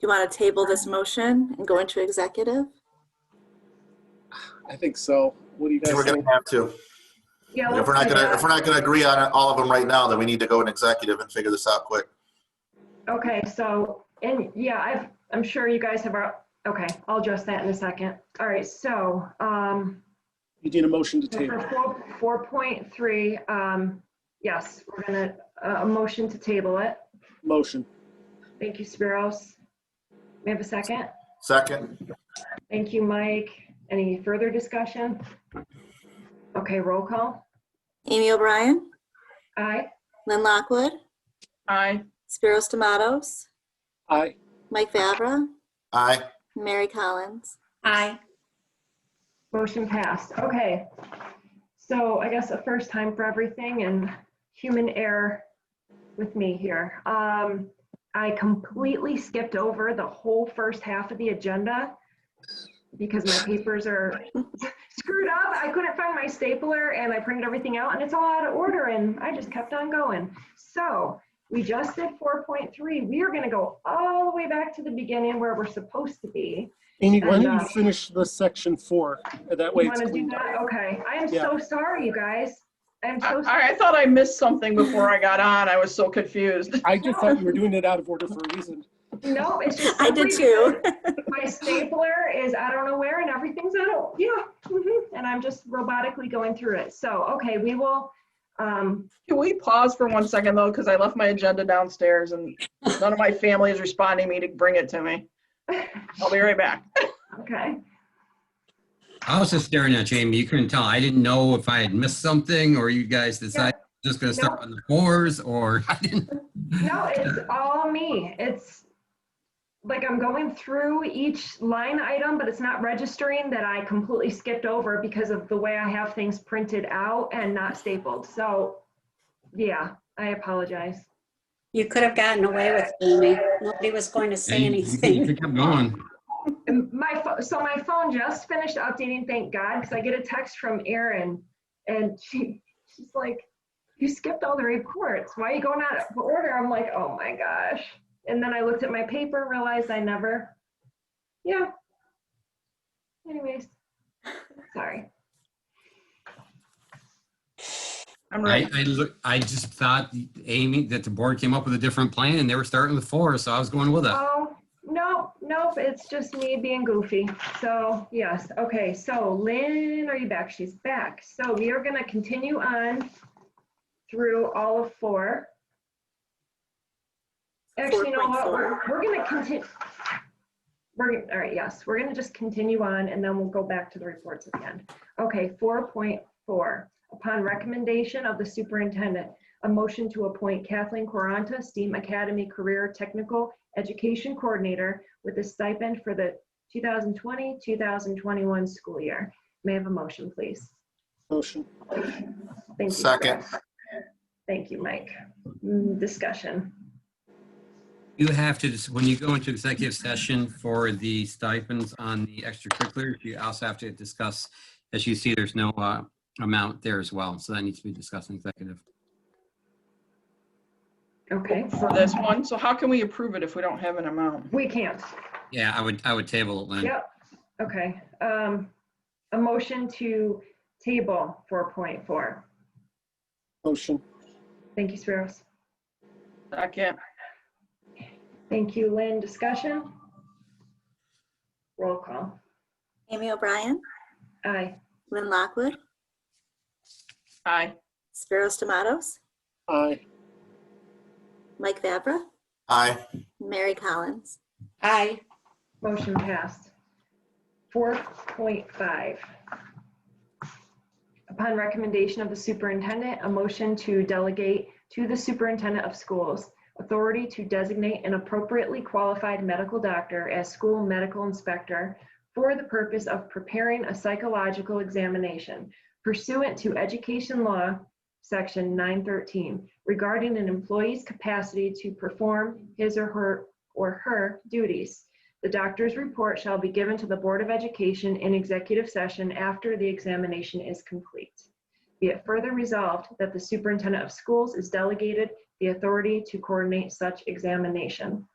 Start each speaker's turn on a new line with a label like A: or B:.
A: you want to table this motion and go into executive?
B: I think so. What do you
C: I think we're
B: guys
C: gonna
B: think?
C: have to.
D: Yeah,
C: If
D: let's
C: we're not
D: do
C: gonna,
D: that.
C: if we're not gonna agree on all of them right now, then we need to go in executive and figure this out quick.
D: Okay, so, and yeah, I've, I'm sure you guys have, our- okay, I'll address that in a second. All right, so, um,
B: You need a motion to table.
D: for four, 4.3, um, yes, we're gonna, uh, a motion to table it.
B: Motion.
D: Thank you, Spiros. We have a second?
C: Second,
D: Thank you, Mike. Any further discussion? Okay, roll call.
A: Amy O'Brien,
D: Aye.
A: Lynn Lockwood,
E: Aye.
A: Spiros Tomatoes,
B: Aye.
A: Mike Fabra,
C: aye.
A: Mary Collins.
F: Aye.
D: Motion passed. Okay. So I guess a first time for everything and human error with me here. Um, I completely skipped over the whole first half of the agenda because my papers are screwed up. I couldn't find my stapler and I printed everything out and it's all out of order and I just kept on going. So we just did 4.3. We are going to go all the way back to the beginning where we're supposed to be.
B: Amy, why don't
D: And,
B: you
D: uh,
B: finish the section four? That way
D: You
B: it's
D: want to do
B: cleaned up.
D: that? Okay. I am
B: Yeah.
D: so sorry, you guys. I'm so sorry.
E: I, I thought I missed something before I got on. I was so confused.
B: I just thought we were doing it out of order for a reason.
D: No, it's just.
A: I did too.
D: My stapler is, I don't know where, and everything's out of, yeah. mhm, And I'm just robotically going through it. So, okay, we will, um,
E: Can we pause for one second though? Because I left my agenda downstairs and none of my family is responding me to bring it to me. I'll be right back.
D: okay.
G: I was just staring at Jamie. You couldn't tell. I didn't know if I had missed something or you guys decided just gonna start on the fours or I didn't.
D: No, it's all me. It's like I'm going through each line item, but it's not registering that I completely skipped over because of the way I have things printed out and not stapled. So, yeah, I apologize.
F: You could have gotten away with it, Amy. Nobody was going to say
G: You
F: anything.
G: kept going.
D: And my pho- so my phone just finished updating thank god because i get a text from erin and she she's like you skipped all the reports why are you going out of order i'm like oh my gosh and then i looked at my paper and realized i never yeah anyways sorry
E: I'm
G: I,
E: ready.
G: I look, I just thought Amy, that the board came up with a different plan and they were starting with fours, so I was going with it.
D: oh nope nope it's just me being goofy so yes okay so lynn are you back she's back so we are going to continue on through all of four Actually, you know what, we're,
A: 4.4.
D: we're gonna continue. We're, gonna- all right, yes, we're gonna just continue on and then we'll go back to the reports at the end. Okay, four point four, upon recommendation of the superintendent, a motion to appoint Kathleen Quaranta, STEAM Academy Career Technical Education Coordinator with a stipend for the 2020-2021 school year. May I have a motion, please?
B: Motion.
D: Thank you.
C: Second.
D: Chris. Thank you, Mike. Mm, Discussion.
G: You have to, just- when you go into executive session for the stipends on the extracurriculars, you also have to discuss, as you see, there's no uh, amount there as well. So that needs to be discussed in executive.
D: Okay,
E: For this one, so how can we approve it if we don't have an amount?
D: we can't.
G: Yeah, I would, I would table it, Lynn.
D: Yep, okay. Um, a motion to table four point four.
B: Motion.
D: Thank you, Spiros.
E: Second,
D: Thank you, Lynn. Discussion? Roll call.
A: Amy O'Brien,
D: Aye.
A: Lynn Lockwood,
E: aye.
A: Spiros Tomatoes,
B: Aye.
A: Mike Fabra,
C: Aye.
A: Mary Collins.
F: Aye.
D: Motion passed. Four point five. Upon recommendation of the superintendent, a motion to delegate to the superintendent of schools authority to designate an appropriately qualified medical doctor as school medical inspector for the purpose of preparing a psychological examination pursuant to education law, section nine thirteen, regarding an employee's capacity to perform his or her or her duties. The doctor's report shall be given to the Board of Education in executive session after the examination is complete. Be it further resolved that the superintendent of schools is delegated the authority to coordinate such examination.